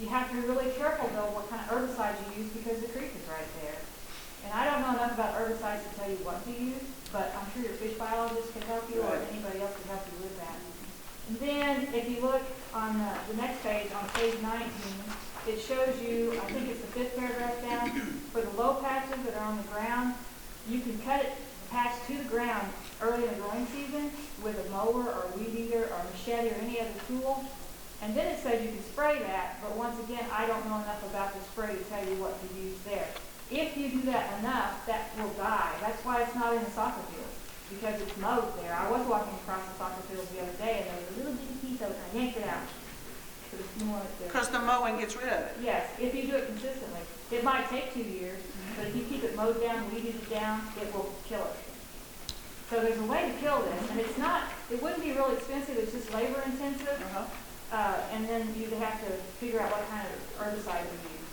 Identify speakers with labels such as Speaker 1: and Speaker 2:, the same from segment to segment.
Speaker 1: You have to be really careful though what kind of herbicide you use because the creek is right there. And I don't know enough about herbicides to tell you what to use, but I'm sure your fish biologist can help you or
Speaker 2: Right.
Speaker 1: anybody else can help you with that. And then if you look on the, the next page, on page nineteen, it shows you, I think it's the fifth paragraph down, for the low patches that are on the ground, you can cut it, patch to the ground early in the growing season with a mower or a weed eater or a machete or any other tool. And then it says you can spray that, but once again, I don't know enough about the spray to tell you what to use there. If you do that enough, that will die. That's why it's not in the soccer field, because it's mowed there. I was walking across the soccer field the other day and there was a little bitty piece of it, and I yanked it out. Because it's more like the-
Speaker 2: Because the mowing gets rid of it.
Speaker 1: Yes, if you do it consistently. It might take two years, but if you keep it mowed down, weeded it down, it will kill it. So there's a way to kill this, and it's not, it wouldn't be real expensive, it's just labor intensive,
Speaker 2: Uh-huh.
Speaker 1: uh, and then you'd have to figure out what kind of herbicide we use.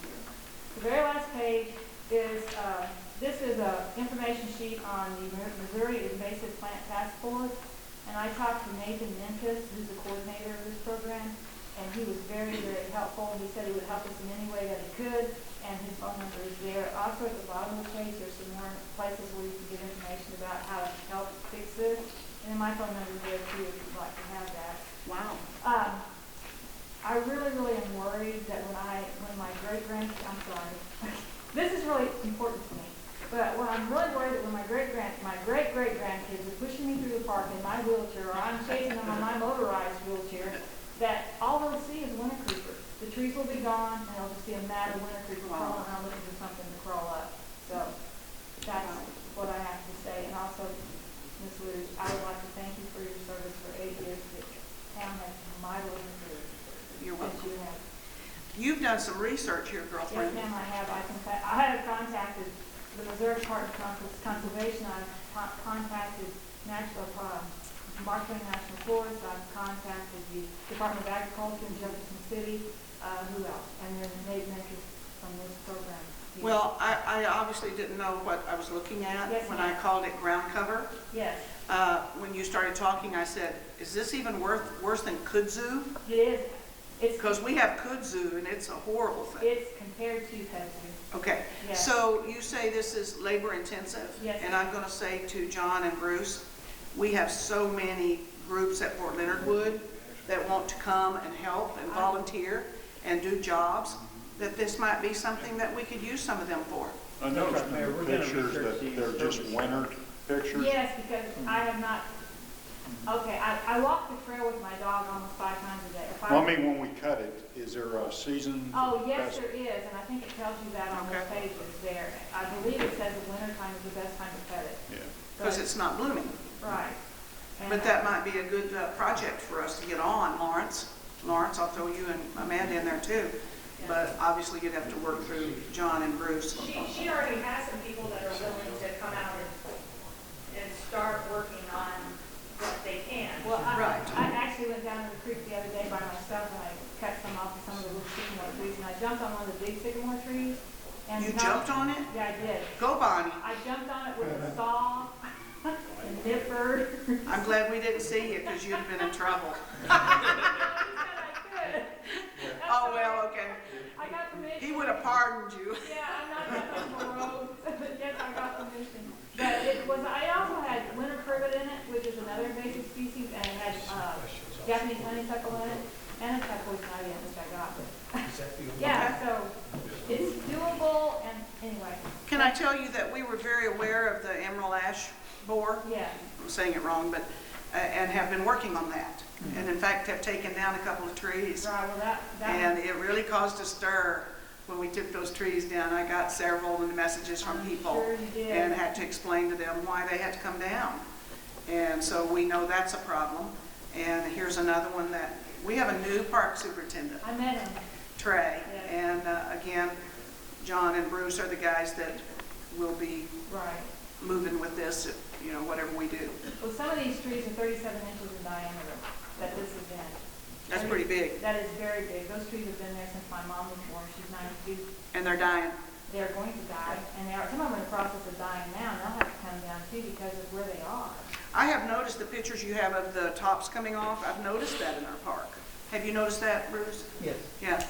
Speaker 1: The very last page is, uh, this is a information sheet on the Mi- Missouri Invasive Plant Task Force, and I talked to Nathan Minkus, who's the coordinator of this program, and he was very, very helpful, he said he would help us in any way that he could, and his phone number is there. Also, at the bottom of the page, there's some more places where you can get information about how to help fix this, and then my phone number is there too, if you'd like to have that.
Speaker 2: Wow.
Speaker 1: Um, I really, really am worried that when I, when my great grand, I'm sorry, this is really important to me. But when I'm really worried that when my great grand, my great great grandkids are pushing me through the park in my wheelchair, or I'm chasing them on my motorized wheelchair, that all they'll see is winter creeper. The trees will be gone, and they'll just be a mad winter creeper crawling around looking for something to crawl up. So that's what I have to say. And also, Ms. Lewis, I would like to thank you for your service for eight years. The town has mightily improved
Speaker 2: You're
Speaker 1: since
Speaker 2: welcome.
Speaker 1: you have
Speaker 2: You've done some research
Speaker 1: Yes,
Speaker 2: here, girlfriend.
Speaker 1: ma'am, I have, I can, I have contacted the Missouri Department of Cons- Conservation, I've con- contacted National, uh, Marshland National Forest, I've contacted the Department of Agriculture in Jefferson City, uh, who else? And then Nate Meckes from this program. here.
Speaker 2: Well, I, I obviously didn't know what I was looking at
Speaker 1: Yes,
Speaker 2: when
Speaker 1: ma'am.
Speaker 2: I called it ground cover.
Speaker 1: Yes,
Speaker 2: Uh, When you started talking, I said, is this even worth, worse than kudzu?
Speaker 1: it is, it's,
Speaker 2: Because we have kudzu and it's a horrible thing.
Speaker 1: it's compared to pedigree,
Speaker 2: Okay,
Speaker 1: yes.
Speaker 2: so you say this is labor intensive?
Speaker 1: Yes.
Speaker 2: And I'm going to say to John and Bruce, we have so many groups at Fort Leonard Wood that want to come and help and volunteer and do jobs, that this might be something that we could use some of them for.
Speaker 3: I noticed
Speaker 4: Mayor,
Speaker 3: in
Speaker 4: we're
Speaker 3: the
Speaker 4: gonna
Speaker 3: pictures
Speaker 4: research
Speaker 3: that
Speaker 4: these
Speaker 3: they're just
Speaker 4: services.
Speaker 3: winter pictures.
Speaker 1: Yes, because I have not, okay, I, I walk the trail with my dog almost five times a day. If I-
Speaker 3: Well, I mean, when we cut it, is there a season?
Speaker 1: Oh, yes,
Speaker 3: best-
Speaker 1: there is, and I think it tells you that on the
Speaker 2: Okay.
Speaker 1: pages there. I believe it says the winter time is the best time to cut it.
Speaker 3: Yeah.
Speaker 2: Because
Speaker 1: but-
Speaker 2: it's not blooming.
Speaker 1: Right. And,
Speaker 2: But that might be a good uh, project for us to get on, Lawrence. Lawrence, I'll throw you and Amanda in there too. But obviously, you'd have to work through John and Bruce.
Speaker 5: She, she already has some people that are willing to come out and, and start working on what they can.
Speaker 1: Well, I,
Speaker 2: Right.
Speaker 1: I actually went down to the creek the other day by myself and I cut some off of some of the little sycamore trees, and I jumped on one of the big sycamore trees. and
Speaker 2: You
Speaker 1: not-
Speaker 2: jumped on it?
Speaker 1: Yeah, I did.
Speaker 2: Go, Bonnie.
Speaker 1: I jumped on it with a saw, a nipper.
Speaker 2: I'm glad we didn't see you because you'd have been in trouble. Oh, well, okay.
Speaker 1: I got permission.
Speaker 2: He would have pardoned you.
Speaker 1: Yeah, I'm not going to road, but yes, I got permission. But it was, I also had winter privet in it, which is another invasive species, and it had, uh, Japanese honeysuckle in it, and a tuckleweed ivy, which I got. Yeah, so it's doable, and anyway,
Speaker 2: Can I tell you that we were very aware of the emerald ash borer?
Speaker 1: yeah,
Speaker 2: I'm saying it wrong, but, uh, and have been working on that. And in fact, have taken down a couple of trees.
Speaker 1: right, well, that, that,
Speaker 2: And it really caused a stir when we took those trees down. I got several messages from
Speaker 1: I'm
Speaker 2: people
Speaker 1: sure you did.
Speaker 2: and had to explain to them why they had to come down. And so we know that's a problem. And here's another one that, we have a new park superintendent,
Speaker 1: I met him,
Speaker 2: Trey.
Speaker 1: Yes.
Speaker 2: And uh, again, John and Bruce are the guys that will be
Speaker 1: right.
Speaker 2: moving with this, you know, whatever we do.
Speaker 1: Well, some of these trees are thirty-seven inches in diameter, that this is in.
Speaker 2: That's pretty big.
Speaker 1: That is very big. Those trees have been there since my mom was born, she's ninety-two.
Speaker 2: And they're dying.
Speaker 1: they're going to die, and they are, some of them are in the process of dying now, and they'll have to come down too because of where they are.
Speaker 2: I have noticed the pictures you have of the tops coming off. I've noticed that in our park. Have you noticed that, Bruce?
Speaker 4: Yes.
Speaker 2: Yeah,